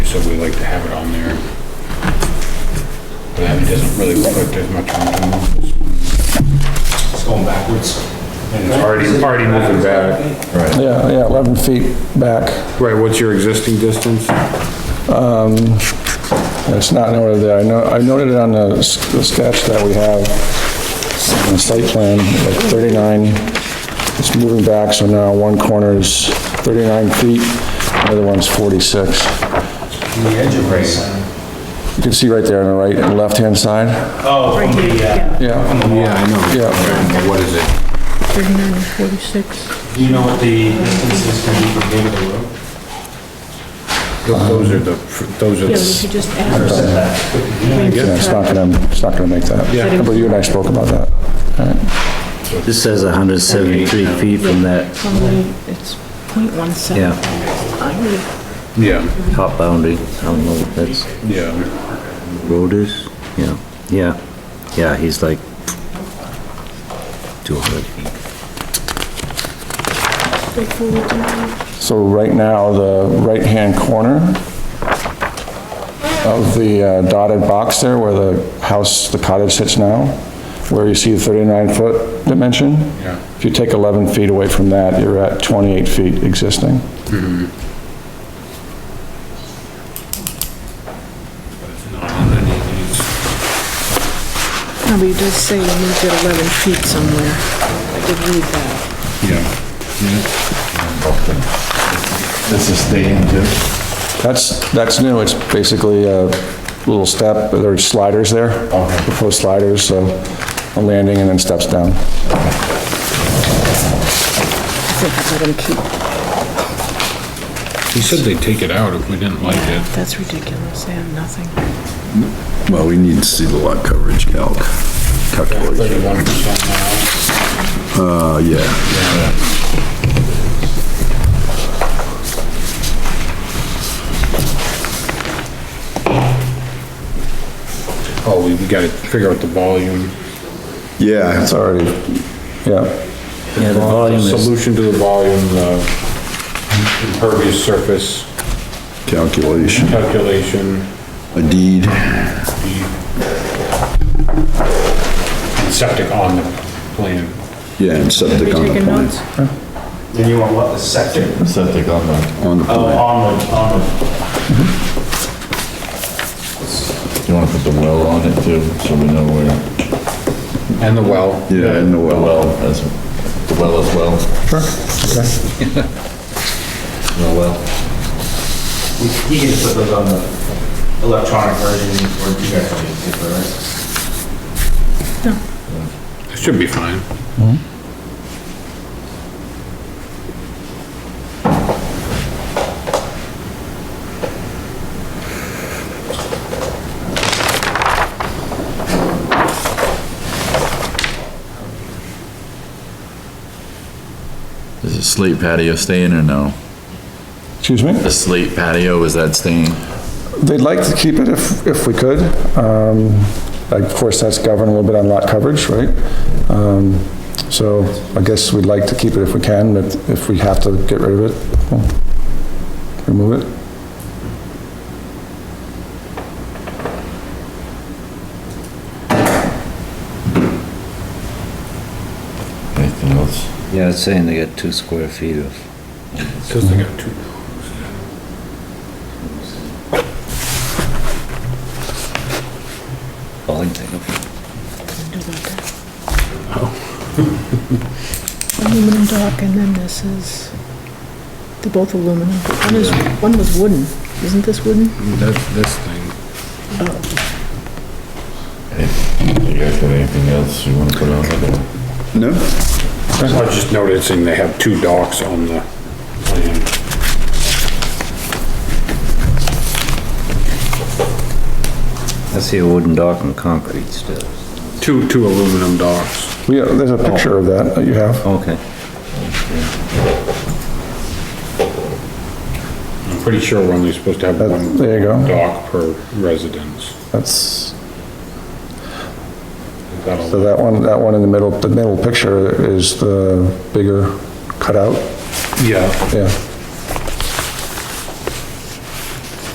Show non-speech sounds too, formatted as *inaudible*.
so we like to have it on there. But it doesn't really look like there's much on it. It's going backwards. And it's already, already moving back. Right. Yeah, yeah, 11 feet back. Right, what's your existing distance? It's not noted there. I know, I noted it on the s- the sketch that we have on the site plan, like 39. It's moving back, so now one corner is 39 feet, the other one's 46. The edge of it. You can see right there on the right and left-hand side. Oh, from the, uh, Yeah, from the Yeah, wall. I know. yeah. But What is it? 39 and 46. Do you know what the distance is gonna be from here to the road? Th- Those are the, those are Yeah, we the, could just add. Yeah, it's not gonna, it's not gonna make that. Yeah. But you and I spoke about that. This says 173 feet from that Probably it's 0.17. Yeah. I would- yeah, top boundary. I don't know what that's, yeah. road is? Yeah, yeah, yeah, he's like 200 feet. So right now, the right-hand corner of the uh, dotted box there where the house, the cottage sits now, where you see the 39-foot dimension? Yeah. If you take 11 feet away from that, you're at 28 feet existing. No, but it does say you moved it 11 feet somewhere. I did read that. Yeah. That's a stadium too. That's, that's new, it's basically a little step, there's sliders there, proposed sliders, so a landing and then steps down. I think I let him keep, He said they'd take it out if we didn't like it. that's ridiculous, they have nothing. Well, we need to see the lot coverage calc, calculation. Thirty-one percent now. Uh, yeah. Oh, we we gotta figure out the volume. Yeah, It's already, yeah. Yeah, the volume is, Solution to the volume, the impervious surface calculation, calculation, a deed. and septic on the plan. Yeah, and Are you septic on the taking plan. notes? Then you want what, the sector? Septic on the. On the Oh, plan. on the, on the, You wanna put the well on it too, so we know where. And the well. Yeah, and the The well. well, as, the well as well. Sure, okay. The well. we- he can put those on the electronic version, or you guys can just paper, right? It should be fine. Is the slate patio staying or no? Excuse me? The slate patio, is that staying? They'd like to keep it if, if we could. Um, like, Of course, that's governed a little bit on lot coverage, right? Um, So I guess we'd like to keep it if we can, but if we have to get rid of it, we'll remove it. Anything else? yeah, it's saying they got two square feet of Says they got two. falling thing. *laughs* Aluminum dock, and then this is, they're both aluminum. but One is, one was wooden, isn't this wooden? That, this thing. You guys got anything else you wanna put on it? No? I was just noticing they have two docks on the plan. I see a wooden dock and concrete still. Two, two aluminum docks. We, uh, there's a picture of that that you have. Okay. I'm pretty sure we're only supposed to have That- one there you go. dock per residence. That's, so That'll- that one, that one in the middle, the middle picture is the bigger cutout, Yeah, yeah.